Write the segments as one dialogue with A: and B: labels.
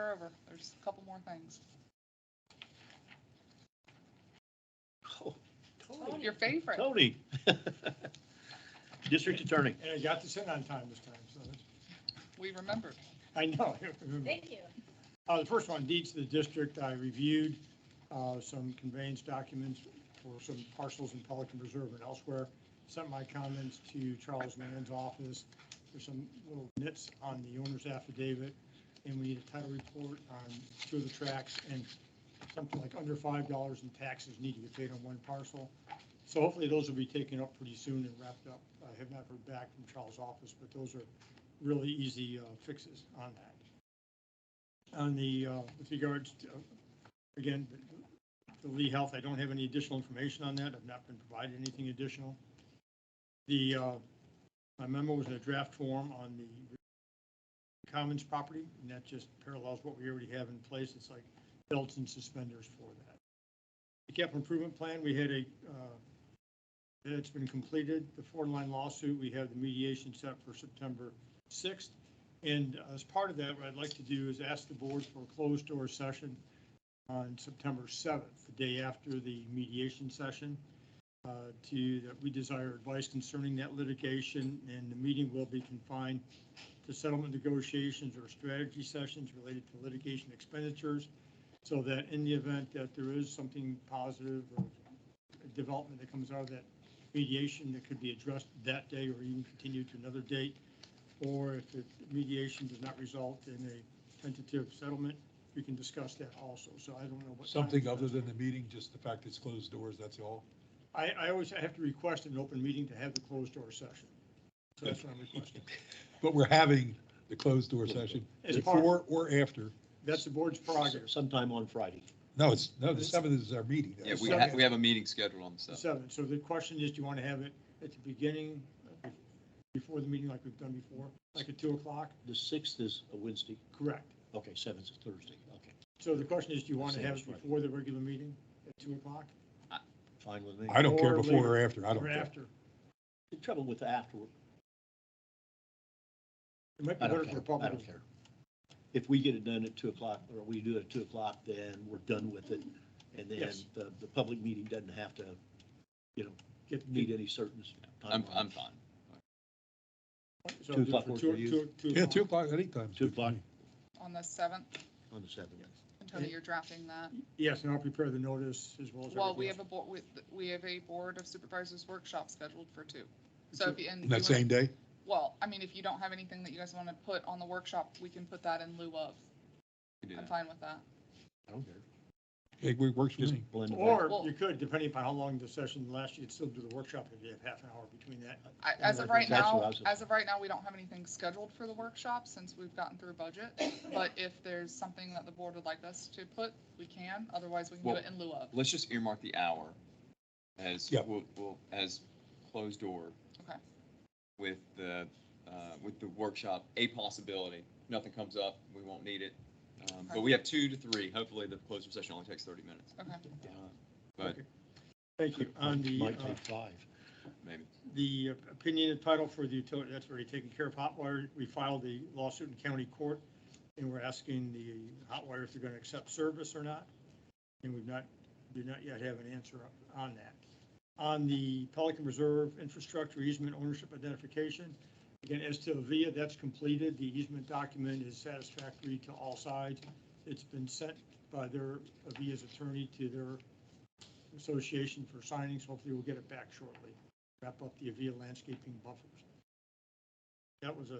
A: more, there's a couple more things.
B: Oh,
A: Oh, your favorite.
B: Tony. District Attorney.
C: And I got this in on time this time, so that's-
A: We remembered.
C: I know.
D: Thank you.
C: Uh, the first one, deeds to the district, I reviewed, uh, some conveyance documents for some parcels in Pelican Reserve and elsewhere. Sent my comments to Charles Land's office, there's some little nits on the owner's affidavit, and we need a title report on two of the tracks, and something like under five dollars in taxes need to be paid on one parcel. So hopefully those will be taken up pretty soon and wrapped up. I have not heard back from Charles' office, but those are really easy uh, fixes on that on the, uh, with regards to, uh, again, the Lee Health, I don't have any additional information on that. I've not been provided anything additional. The, uh, my memo was in a draft form on the Commons property, and that just parallels what we already have in place. It's like belts and suspenders for that. The capital improvement plan, we had a, uh, it's been completed. The four-line lawsuit, we have the mediation set for September 6th. And as part of that, what I'd like to do is ask the board for a closed-door session on September 7th, the day after the mediation session, uh, to, that we desire advice concerning that litigation, and the meeting will be confined to settlement negotiations or strategy sessions related to litigation expenditures, so that in the event that there is something positive or a development that comes out of that mediation that could be addressed that day or even continued to another date, or if the mediation does not result in a tentative settlement, we can discuss that also. So I don't know what. time-
E: Something other than the meeting, just the fact it's closed doors, that's all.
C: I, I always have to request an open meeting to have the closed door session. So that's what I'm requesting.
E: But we're having the closed door session
C: As part,
E: before or after.
C: that's the board's prerogative,
B: Sometime on Friday.
E: No, it's, no, the seventh is our meeting.
F: Yeah, we
C: Second.
F: have, we have a meeting scheduled on the
C: the seven.
F: seventh.
C: So the question is, do you want to have it at the beginning, uh, before the meeting like we've done before, like at two o'clock?
B: The sixth is a Wednesday.
C: Correct.
B: Okay, seventh is Thursday. Okay,
C: So the question is, do you want to
B: Same
C: have
B: as
C: it
B: Friday.
C: before the regular meeting at two o'clock
B: fine with me.
E: I don't care
C: Or
E: before or
C: later,
E: after, I don't
C: or
E: care.
C: after?
B: The trouble with the afterward,
C: It might be
B: I
C: better
B: don't
C: for the
B: care.
C: public.
B: I don't care. If we get it done at two o'clock, or we do it at two o'clock, then we're done with it. And then
C: Yes.
B: the, the public meeting doesn't have to, you know,
C: Get-
B: meet any certain
F: I'm, I'm
B: timeline.
F: fine.
C: So
B: Two
C: just
B: o'clock
C: for
B: work
C: two-
B: for you?
C: two- two
E: Yeah,
C: o'clock.
E: two o'clock, anytime.
B: Two o'clock
A: On the seventh,
B: on the seventh.
A: and Tony, you're drafting that.
C: Yes, and I'll prepare the notice as well as.
A: Well, we
C: everything
A: have a board, we, we have a board of supervisors workshop scheduled for two. So if you, and. you
E: That
A: wanna-
E: same day?
A: Well, I mean, if you don't have anything that you guys want to put on the workshop, we can put that in lieu of.
F: We can do
A: I'm
F: that.
A: fine with that.
B: I don't care.
E: It works for
B: Just
E: me.
B: blend
C: else.
B: it.
C: Or
A: Well-
C: you could, depending upon how long the session lasts, you'd still do the workshop if you have half an hour between that.
A: I, as
C: Yeah,
A: of
C: I
A: right
C: think
B: that's what I
A: now,
B: was-
A: as of right now, we don't have anything scheduled for the workshop since we've gotten through budget. But if there's something that the board would like us to put, we can. Otherwise, we can do it in lieu of.
F: Let's just earmark the hour as,
E: Yeah.
F: we'll, we'll, as closed door.
A: Okay.
F: With the, uh, with the workshop, a possibility, nothing comes up, we won't need it. Um,
A: Okay.
F: But we have two to three, hopefully the closed session only takes thirty minutes,
A: Okay.
F: Uh, but
C: Okay. Thank you. On the,
B: Might
C: uh,
B: take five.
F: maybe.
C: the opinion and title for the utility, that's already taken care of. Hotwire, we filed the lawsuit in county court, and we're asking the Hotwire if they're going to accept service or not. And we've not, do not yet have an answer on that. On the Pelican Reserve Infrastructure Easement Ownership Identification, again, as to Avia, that's completed. The easement document is satisfactory to all sides. It's been sent by their, Avia's attorney to their association for signing, so hopefully we'll get it back shortly wrap up the Avia landscaping buffers. That was a,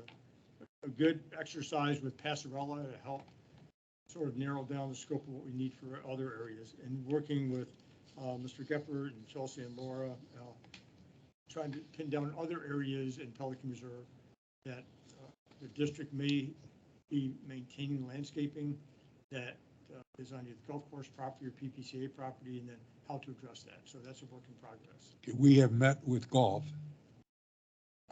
C: a good exercise with Passarella to help sort of narrow down the scope of what we need for other areas. And working with uh, Mr. Gepper and Chelsea and Laura, uh, trying to pin down other areas in Pelican Reserve that uh, the district may be maintaining landscaping that uh, is on either golf course property or PPCA property, and then how to address that. So that's a work in progress.
E: We have met with golf.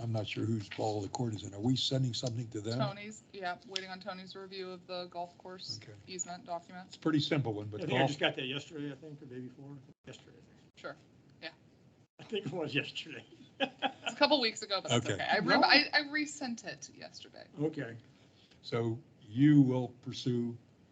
E: I'm not sure whose ball the court is in. Are we sending something to them?
A: Tony's, yeah, waiting on Tony's review of the golf course
E: Okay.
A: easement document.
E: It's a pretty simple one,
C: I
E: but
C: think I
E: golf,
C: just got that yesterday, I think, or day before, yesterday.
A: Sure. Yeah.
C: I think it was yesterday.
A: It's a couple weeks ago, but that's
E: Okay.
A: okay. I remember, I, I resent it yesterday.
C: Okay,
E: so you will pursue